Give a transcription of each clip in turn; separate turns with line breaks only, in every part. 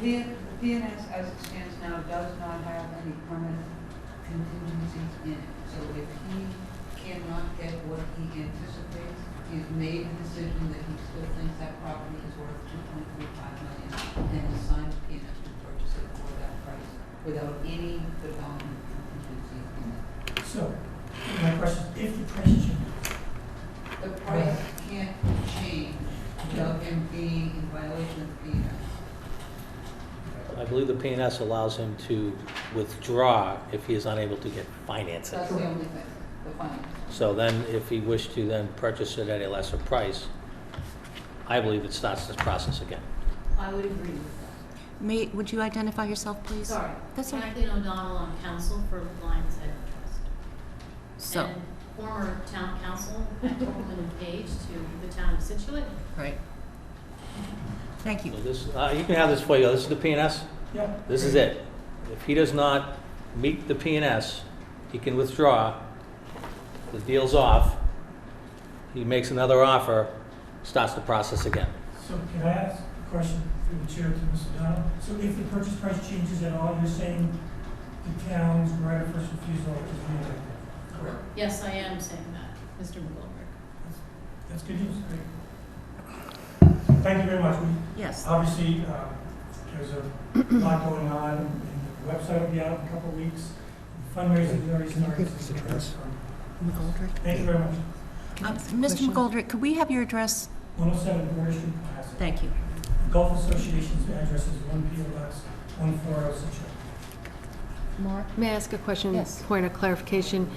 P- PNS as it stands now does not have any permanent contingencies in it. So if he cannot get what he anticipates, he's made a decision that he still thinks that property is worth two point three five million and has signed PNS to purchase it for that price without any development contingency in it.
So, my question, if the price changes,
The price can't change without him being in violation of PNS.
I believe the PNS allows him to withdraw if he is unable to get financing.
That's the only thing, the findings.
So then, if he wished to then purchase it at a lesser price, I believe it starts this process again.
I would agree with
May, would you identify yourself,
that.
please?
Sorry.
That's all right.
Kathleen O'Donnell, I'm counsel for Lions Head Trust.
So,
And former town council at Copeland and Page to the town of Situate.
right. Thank you.
So this, uh, you can have this for you, this is the PNS,
yeah.
this is it. If he does not meet the PNS, he can withdraw, the deal's off, he makes another offer, starts the process again.
So can I ask a question through the chair to Mr. Donovan? So if the purchase price changes at all, you're saying the town's right of first refusal is reenacted? Correct.
Yes, I am saying that, Mr. McGolver.
That's good news, great. Thank you very much. We-
Yes.
Obviously, um, there's a lot going on, and the website will be out in a couple of weeks. Fundraising already
Can you
started.
give us the address? McGoldrick?
Thank you very much.
Um, Mr. McGoldrick, could we have your address?
107 Border oh Street, Cohasset.
Thank you.
Golf Association's address is one P O Box, one four oh Situate.
Mark?
May I ask a question?
Yes.
Point of clarification.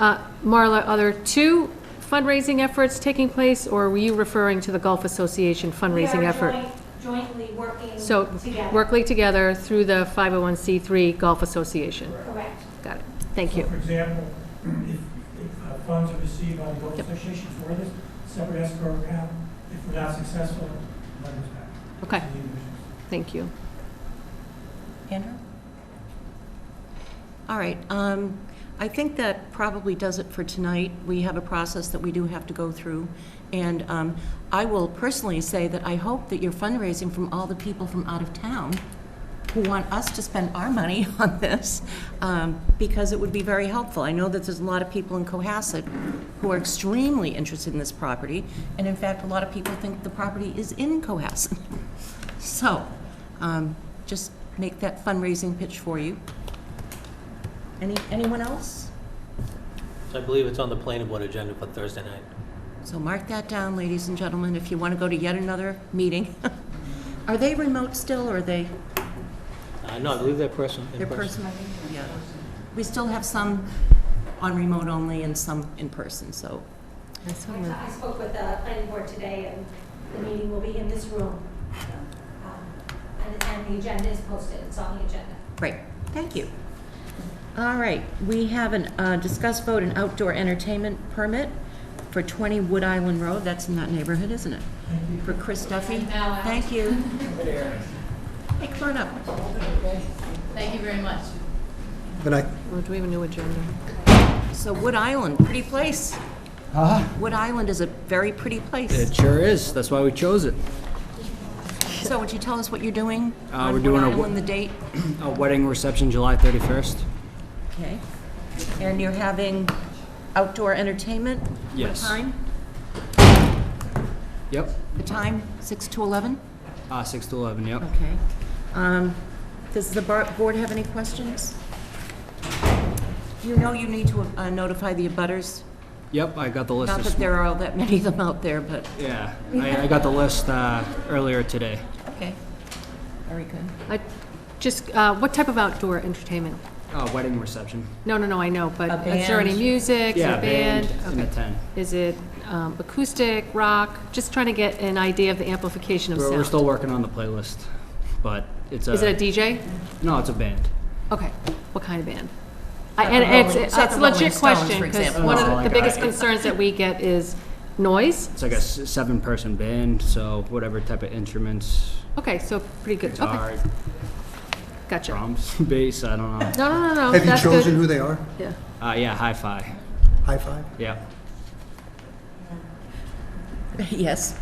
Uh, Marla, are there two fundraising efforts taking place, or were you referring to the Gulf Association fundraising effort?
We are joint- jointly working
So,
together.
working together through the 501c3 Gulf Association.
Correct.
Got it. Thank
So,
you.
For example, if, if uh, funds are received by the Golf
Yep.
Association for this, separate escrow account, if we're not successful, money is back
Okay,
to the individuals.
thank you.
Andrew? All right, um, I think that probably does it for tonight. We have a process that we do have to go through. And, um, I will personally say that I hope that you're fundraising from all the people from out of town who want us to spend our money on this, um, because it would be very helpful. I know that there's a lot of people in Cohasset who are extremely interested in this property, and in fact, a lot of people think the property is in Cohasset. So, um, just make that fundraising pitch for you. Any, anyone else?
So I believe it's on the planning board agenda for Thursday night.
So mark that down, ladies and gentlemen, if you want to go to yet another meeting. Are they remote still, or are they,
Uh, no, I believe that person, in
they're
person.
personal? Yeah. We still have some on remote only and some in person, so.
I I spoke with the planning board today, and the meeting will be in this room. Um, And and the agenda is posted, it's on the agenda.
Great, thank you. All right, we have an, uh, discuss vote an outdoor entertainment permit for 20 Wood Island Road, that's in that neighborhood, isn't it? For Chris Duffy.
And now out.
Thank you. Hey, come on up.
Thank you very much.
Good night.
Well, Oh, Do we have a new agenda?
So Wood Island, pretty place.
Uh-huh.
Wood Island is a very pretty
It
place.
sure is. That's why we chose it.
So would you tell us what you're doing?
Uh,
on
we're doing a
Wood
wo-
Island, the date?
A wedding reception July 31st.
Okay. And you're having outdoor entertainment?
Yes.
What time?
Yep.
The time, 6 to 11?
Uh, 6 to 11, yep.
Okay. Um, Does the bar- board have any questions? You know you need to uh, notify the abutters.
Yep, I got the list.
Not
this
that there are all that many of them out there, but,
m- yeah, I, I got the list uh, earlier today.
okay. Very good.
I- Just, uh, what type of outdoor entertainment?
Uh, wedding reception.
No, no, no, I know, but
A
is there any
band.
music? Is there
yeah,
a band?
and a
Okay.
10.
Is it um, acoustic, rock? Just trying to get an idea of the amplification of
We're,
sound.
we're still working on the playlist, but it's a.
Is it a DJ?
No, it's a band.
Okay, what kind of band? I-
Not the
And it's,
Rolling-
it's
not
it's
the
a
Rolling
legit
Stones,
question,
for
because
example. Oh,
one of
No,
the- the
like
biggest
I-
concerns that we get is noise.
It's like a s- seven person band, so whatever type of instruments
Okay, so pretty good,
guitar,
okay, gotcha.
drums, bass, I don't know.
No, no, no, no,
Have you
that's good.
chosen who they are?
Yeah.
Uh, yeah, hi fi.
High five?
Yeah.
Yes.